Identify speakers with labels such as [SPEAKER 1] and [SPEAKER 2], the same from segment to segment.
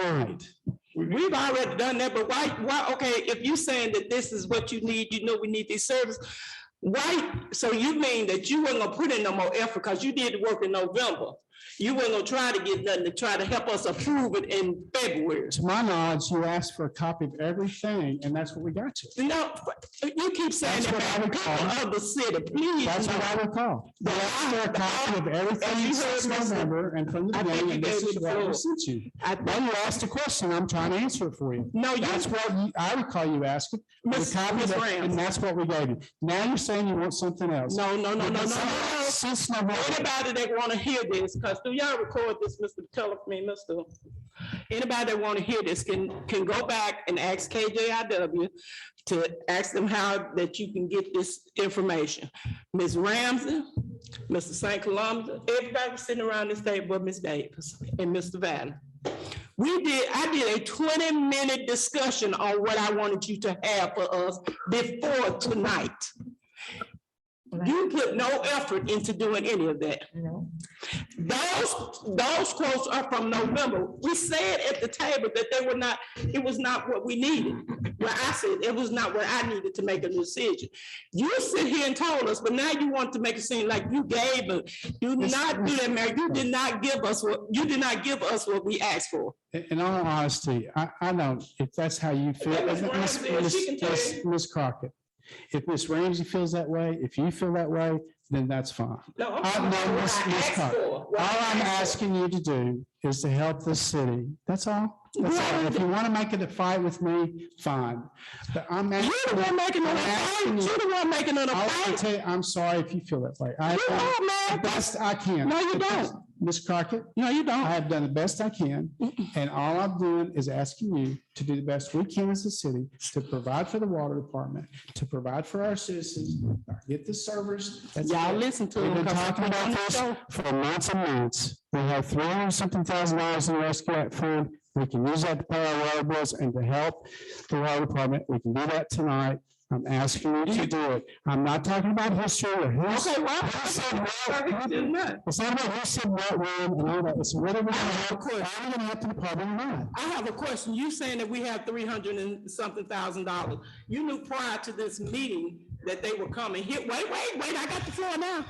[SPEAKER 1] tonight.
[SPEAKER 2] We've already done that, but why, why, okay, if you saying that this is what you need, you know we need these services. Why, so you mean that you weren't gonna put in no more effort because you did the work in November? You weren't gonna try to get nothing to try to help us approve it in February?
[SPEAKER 1] To my knowledge, you asked for a copy of everything, and that's what we got you.
[SPEAKER 2] No, you keep saying
[SPEAKER 1] That's what I
[SPEAKER 2] that,
[SPEAKER 1] would
[SPEAKER 2] people
[SPEAKER 1] call
[SPEAKER 2] of the city, please.
[SPEAKER 1] That's what
[SPEAKER 2] no.
[SPEAKER 1] I recall. They asked for a copy of
[SPEAKER 2] As
[SPEAKER 1] everything
[SPEAKER 2] you
[SPEAKER 1] since
[SPEAKER 2] heard, Mr.
[SPEAKER 1] November and from the
[SPEAKER 2] I think
[SPEAKER 1] beginning,
[SPEAKER 2] you
[SPEAKER 1] and this
[SPEAKER 2] gave
[SPEAKER 1] is
[SPEAKER 2] me the
[SPEAKER 1] what
[SPEAKER 2] floor.
[SPEAKER 1] was sent you.
[SPEAKER 2] I-
[SPEAKER 1] Then you asked a question, I'm trying to answer it for you.
[SPEAKER 2] No, you,
[SPEAKER 1] That's what you- I recall you asking, the
[SPEAKER 2] Miss-
[SPEAKER 1] copy,
[SPEAKER 2] Miss
[SPEAKER 1] that-
[SPEAKER 2] Rams.
[SPEAKER 1] and that's what we gave you. Now you're saying you want something else.
[SPEAKER 2] no, no, no, no, no, no.
[SPEAKER 1] Since November,
[SPEAKER 2] Anybody that wanna hear this, because do y'all record this, Mr. Tell me, Mr. Anybody that wanna hear this can, can go back and ask KJIW to ask them how that you can get this information. Ms. Ramsey, Mr. St. Columbus, everybody sitting around this table, but Ms. Davis and Mr. Valley. We did, I did a twenty-minute discussion on what I wanted you to have for us before tonight. You put no effort into doing any of that. Those, those quotes are from November. We said at the table that they were not, it was not what we needed. Well, I said it was not what I needed to make a decision. You sit here and told us, but now you want to make it seem like you gave, us. you did not do that, Mayor. You did not give us what, you did not give us what we asked for.
[SPEAKER 1] in in all honesty, I, I don't, if that's how you feel.
[SPEAKER 2] That was
[SPEAKER 1] Miss-
[SPEAKER 2] Ramsey, and she can tell
[SPEAKER 1] Miss-
[SPEAKER 2] you.
[SPEAKER 1] Miss Crockett, if Miss Ramsey feels that way, if you feel that way, then that's fine.
[SPEAKER 2] No, I'm
[SPEAKER 1] Uh,
[SPEAKER 2] talking
[SPEAKER 1] no,
[SPEAKER 2] about what
[SPEAKER 1] Ms.
[SPEAKER 2] I
[SPEAKER 1] Ms.
[SPEAKER 2] asked
[SPEAKER 1] Carter.
[SPEAKER 2] for, what
[SPEAKER 1] All
[SPEAKER 2] I
[SPEAKER 1] I'm
[SPEAKER 2] asked
[SPEAKER 1] asking you to do is to help the city. That's all. That's all. If you want to make it a fight with me, fine. But I'm.
[SPEAKER 2] for. You're the one making an
[SPEAKER 1] I'm asking
[SPEAKER 2] appointment.
[SPEAKER 1] you-
[SPEAKER 2] You're the one making an
[SPEAKER 1] I'll I'll
[SPEAKER 2] appointment.
[SPEAKER 1] tell you, I'm sorry if you feel that way. I,
[SPEAKER 2] You
[SPEAKER 1] I- the
[SPEAKER 2] are, man.
[SPEAKER 1] best I can.
[SPEAKER 2] No, you don't.
[SPEAKER 1] Ms. Crockett? No, you don't. I have done the best I can, and all I'm doing is asking you to do the best we can as a city to provide for the water department, to provide for our citizens, get the servers. That's
[SPEAKER 2] Y'all
[SPEAKER 1] it.
[SPEAKER 2] listen to
[SPEAKER 1] We've
[SPEAKER 2] him.
[SPEAKER 1] been
[SPEAKER 2] 'cause
[SPEAKER 1] talking about
[SPEAKER 2] on the
[SPEAKER 1] this
[SPEAKER 2] show.
[SPEAKER 1] for months and months. We have three hundred something thousand dollars in the rescue act fund. We can use that to pay our water bills and to help the water department. We can do that tonight. I'm asking you to do it. I'm not talking about history or who's.
[SPEAKER 2] Okay, well,
[SPEAKER 1] who said what.
[SPEAKER 2] Did not.
[SPEAKER 1] It's not about who said what when and all that. It's whether we're gonna help, are we gonna help the department or not.
[SPEAKER 2] I have a question. You saying that we have three hundred and something thousand dollars. You knew prior to this meeting that they were coming here. Wait, wait, wait, I got the floor now.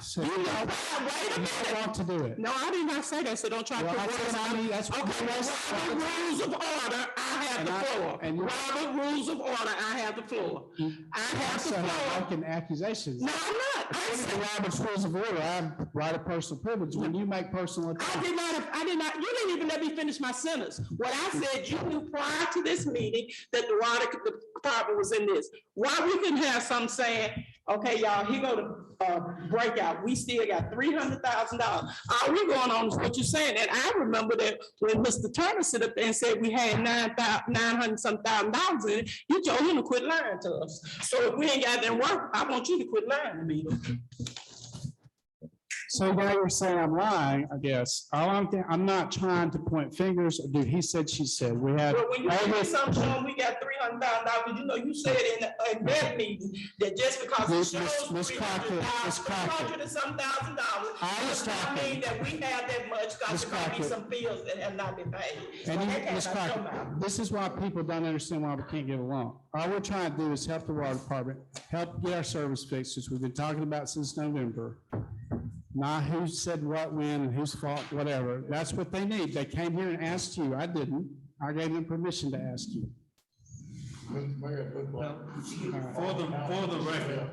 [SPEAKER 1] So
[SPEAKER 2] You
[SPEAKER 1] you
[SPEAKER 2] know, wait, wait a minute.
[SPEAKER 1] want to do it.
[SPEAKER 2] No, I did not say that, so don't try to.
[SPEAKER 1] Well,
[SPEAKER 2] put
[SPEAKER 1] that's
[SPEAKER 2] words
[SPEAKER 1] what I
[SPEAKER 2] in my-
[SPEAKER 1] mean, that's what-
[SPEAKER 2] Okay, well, Robert rules of order, I have
[SPEAKER 1] And
[SPEAKER 2] the
[SPEAKER 1] I-
[SPEAKER 2] floor.
[SPEAKER 1] and- Mm-hmm.
[SPEAKER 2] Robert rules of order, I have the floor. I have the
[SPEAKER 1] So I'm
[SPEAKER 2] floor.
[SPEAKER 1] making accusations.
[SPEAKER 2] No, I'm not. I
[SPEAKER 1] According to
[SPEAKER 2] said-
[SPEAKER 1] Robert's rules of order, I have right of personal privilege. When you make personal
[SPEAKER 2] I
[SPEAKER 1] attacks,
[SPEAKER 2] did not, I did not, you didn't even let me finish my sentence. What I said, you knew prior to this meeting that the water department was in this. Why we couldn't have some saying, okay, y'all, here go the uh, breakout, we still got three hundred thousand dollars. Are we going on is what you're saying? And I remember that when Mr. Turner stood up there and said we had nine thou, nine hundred some thousand dollars in it, you told him to quit lying to us. So if we ain't got that work, I want you to quit lying to me.
[SPEAKER 1] so now you're saying I'm lying, I guess. All I'm, thi- I'm not trying to point fingers or do he said, she said. We had.
[SPEAKER 2] But when you
[SPEAKER 1] all
[SPEAKER 2] give me
[SPEAKER 1] this-
[SPEAKER 2] some, showing we got three hundred thousand dollars, you know, you said in, in that meeting, that just because it
[SPEAKER 1] Miss-
[SPEAKER 2] shows
[SPEAKER 1] Miss- Miss
[SPEAKER 2] three
[SPEAKER 1] Crockett,
[SPEAKER 2] hundred
[SPEAKER 1] Miss
[SPEAKER 2] thousand, three
[SPEAKER 1] Crockett.
[SPEAKER 2] hundred and some thousand dollars.
[SPEAKER 1] I was
[SPEAKER 2] does not
[SPEAKER 1] talking-
[SPEAKER 2] Mean that we have that much,
[SPEAKER 1] Miss
[SPEAKER 2] cause there might be
[SPEAKER 1] Crockett.
[SPEAKER 2] some bills that have not been paid. So
[SPEAKER 1] And
[SPEAKER 2] that
[SPEAKER 1] you,
[SPEAKER 2] can't
[SPEAKER 1] Ms.
[SPEAKER 2] not
[SPEAKER 1] Crockett,
[SPEAKER 2] come out.
[SPEAKER 1] this is why people don't understand why we can't get along. All we're trying to do is help the water department, help get our service fixed, which we've been talking about since November. Not who said what, when, and whose fault, whatever. That's what they need. They came here and asked you. I didn't. I gave them permission to ask you.
[SPEAKER 3] For the, for the record,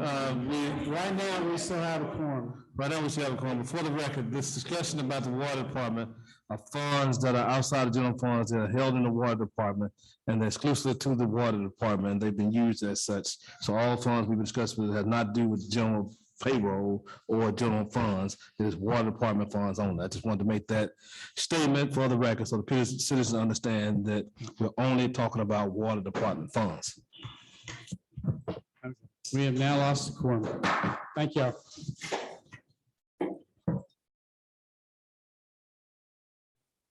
[SPEAKER 3] uh, we,
[SPEAKER 1] Right now, we still have a quorum.
[SPEAKER 3] right now, we should have a call, for the record, this discussion about the water department are funds that are outside of general funds that are held in the water department and they're exclusive to the water department, and they've been used as such. So all funds we've discussed with have not do with general payroll or general funds, it is water department funds only. I just wanted to make that statement for the record, so the pe- citizens understand that we're only talking about water department funds.
[SPEAKER 1] We have now lost the quorum. Thank y'all.